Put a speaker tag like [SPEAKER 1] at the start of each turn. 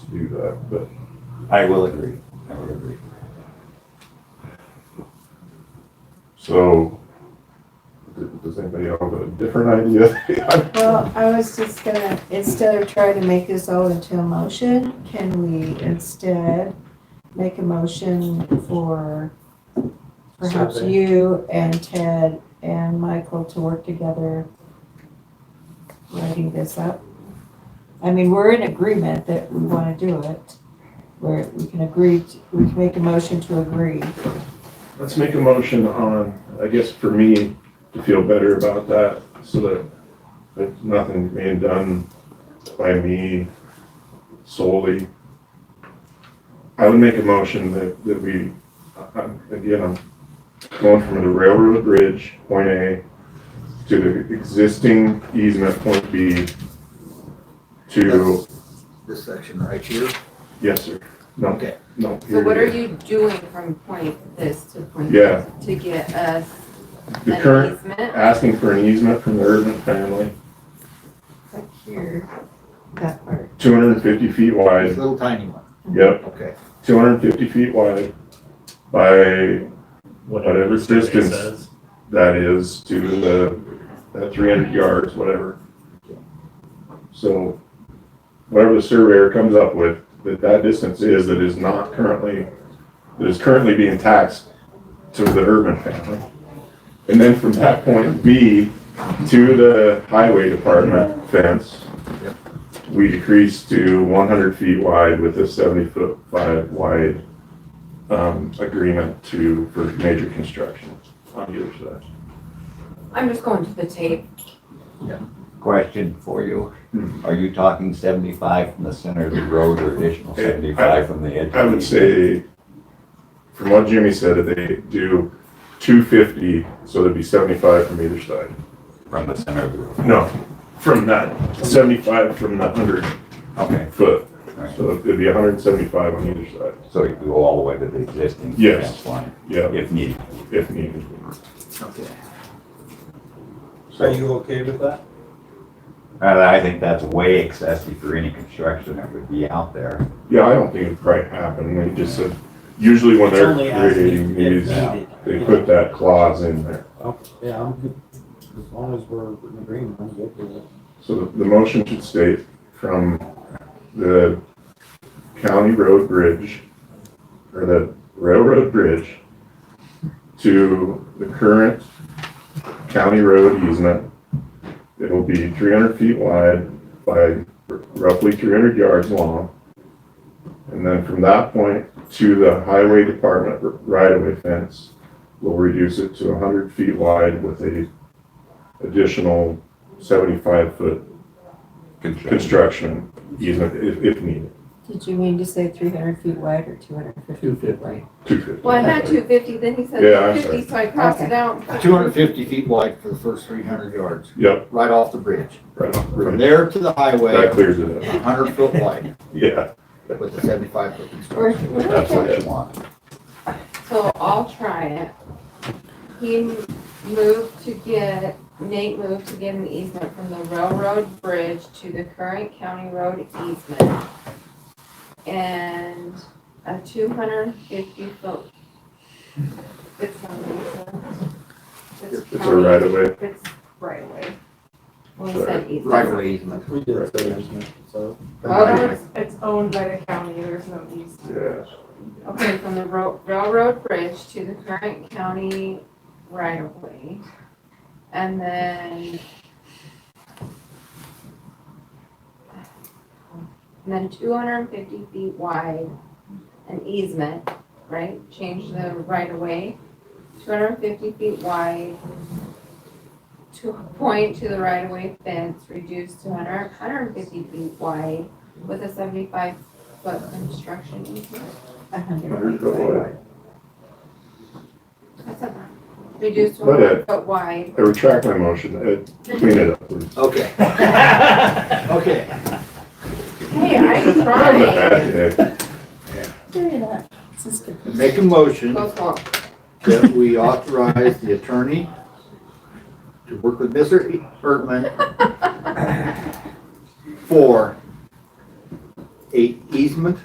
[SPEAKER 1] that, but I will agree. I will agree.
[SPEAKER 2] So, d- does anybody have a different idea?
[SPEAKER 3] Well, I was just gonna, instead of trying to make this all into a motion, can we instead make a motion for perhaps
[SPEAKER 4] Survey.
[SPEAKER 3] you and Ted and Michael to work together writing this up? I mean, we're in agreement that we wanna do it, where we can agree, to- we can make a motion to agree.
[SPEAKER 2] Let's make a motion on, I guess for me, to feel better about that, so that if nothing being done by me solely. I would make a motion that, that we, I- I'm- again, I'm going from the railroad bridge, point A, to the existing easement, point B, to,
[SPEAKER 4] This section right here.
[SPEAKER 2] yes, sir, no,
[SPEAKER 4] Okay.
[SPEAKER 2] no.
[SPEAKER 5] So what are
[SPEAKER 2] here it is.
[SPEAKER 5] you doing from point this to point?
[SPEAKER 2] Yeah.
[SPEAKER 5] this To get us
[SPEAKER 2] The
[SPEAKER 5] an
[SPEAKER 2] current,
[SPEAKER 5] easement?
[SPEAKER 2] asking for an easement from the Urban family.
[SPEAKER 3] Like here, that part.
[SPEAKER 2] 250 feet
[SPEAKER 4] This
[SPEAKER 2] wide,
[SPEAKER 4] little tiny one.
[SPEAKER 2] yep,
[SPEAKER 4] Okay.
[SPEAKER 2] 250 feet wide by Whatever
[SPEAKER 6] the survey
[SPEAKER 2] distance.
[SPEAKER 6] says.
[SPEAKER 2] that is to the, that 300 yards, whatever. So whatever the surveyor comes up with, that that distance is, that is not currently, that is currently being taxed to the urban family. And then from that point B to the highway department fence,
[SPEAKER 4] Yep.
[SPEAKER 2] we decrease to 100 feet wide with a 70 foot five wide um, agreement to, for major construction on either side.
[SPEAKER 5] I'm just going to the tape.
[SPEAKER 1] Question for you.
[SPEAKER 2] Hmm.
[SPEAKER 1] Are you talking seventy-five from the center of the road or additional
[SPEAKER 2] Eh, I-
[SPEAKER 1] seventy-five from the edge? of
[SPEAKER 2] I would say,
[SPEAKER 1] the-
[SPEAKER 2] from what Jimmy said, that they do two fifty, so there'd be seventy-five from either side.
[SPEAKER 1] From the center of the road.
[SPEAKER 2] No, from that, seventy-five from the hundred
[SPEAKER 1] Okay,
[SPEAKER 2] foot,
[SPEAKER 1] all right.
[SPEAKER 2] so it'd be hundred and seventy-five on either side,
[SPEAKER 1] So you go all the way to the existing
[SPEAKER 2] Yes.
[SPEAKER 1] fence line
[SPEAKER 2] yeah,
[SPEAKER 1] if needed.
[SPEAKER 2] if needed.
[SPEAKER 4] Okay.
[SPEAKER 1] So
[SPEAKER 4] okay with that?
[SPEAKER 1] uh, I think that's way excessive for any construction that would be out there.
[SPEAKER 2] Yeah, I don't think it'd probably happen, they just said, usually when
[SPEAKER 7] It's
[SPEAKER 2] they're
[SPEAKER 7] only asking
[SPEAKER 2] creating
[SPEAKER 7] if
[SPEAKER 2] these,
[SPEAKER 7] needed.
[SPEAKER 2] they put that clause in there.
[SPEAKER 7] Oh, Yeah, I'm good. As long as we're in agreement, I'm good with it.
[SPEAKER 2] So the, the motion should state from the county road bridge, or the railroad bridge, to the current county road easement. It'll be three hundred feet wide by roughly three hundred yards long. And then from that point to the highway department right-of-way fence, we'll reduce it to hundred feet wide with a additional seventy-five foot construction easement if, if needed.
[SPEAKER 3] Did you mean to say three hundred feet wide or two hundred and fifty feet wide?
[SPEAKER 2] Two fifty.
[SPEAKER 5] Well, I had two fifty, then he said
[SPEAKER 2] Yeah, I'm
[SPEAKER 5] two fifty, so I crossed it out.
[SPEAKER 4] Two hundred fifty feet wide for the first three hundred yards,
[SPEAKER 2] Yep,
[SPEAKER 4] right off the bridge.
[SPEAKER 2] right,
[SPEAKER 4] From
[SPEAKER 2] right.
[SPEAKER 4] there to the
[SPEAKER 2] That
[SPEAKER 4] highway,
[SPEAKER 2] clears it up.
[SPEAKER 4] hundred foot wide
[SPEAKER 2] Yeah,
[SPEAKER 4] with a seventy-five foot
[SPEAKER 3] Or,
[SPEAKER 4] construction.
[SPEAKER 1] That's what you want.
[SPEAKER 5] So I'll try it. He moved to get, Nate moved to get an easement from the railroad bridge to the current county road easement. And a two hundred and fifty foot. It's not an easement.
[SPEAKER 2] it's a right of way.
[SPEAKER 5] It's right away. Well, we said easement.
[SPEAKER 4] Right away easement.
[SPEAKER 7] We did say there's no, so.
[SPEAKER 5] Well,
[SPEAKER 2] Right.
[SPEAKER 8] It's, it's owned by the county, there's no easement.
[SPEAKER 2] Yeah,
[SPEAKER 5] Okay, from the ro- railroad bridge to the current county right of way. And then. And then two hundred and fifty feet wide, an easement, right? Change the right of way, two hundred and fifty feet wide. To point to the right of way fence, reduced to 100 150 feet wide with a seventy-five foot construction easement.
[SPEAKER 3] a hundred
[SPEAKER 2] hundred
[SPEAKER 3] feet
[SPEAKER 2] foot
[SPEAKER 3] wide?
[SPEAKER 2] wide.
[SPEAKER 5] That's a- Reduced to
[SPEAKER 2] But, uh,
[SPEAKER 5] one foot wide.
[SPEAKER 2] I retract my motion, Uh, clean it up, please.
[SPEAKER 4] Okay, okay.
[SPEAKER 5] Hey, I'm
[SPEAKER 2] I'm a
[SPEAKER 5] trying.
[SPEAKER 2] bad day.
[SPEAKER 3] Very nice. This is good.
[SPEAKER 4] Make a motion
[SPEAKER 5] Go slow.
[SPEAKER 4] that we authorize the attorney to work with Mr. Ertman for a easement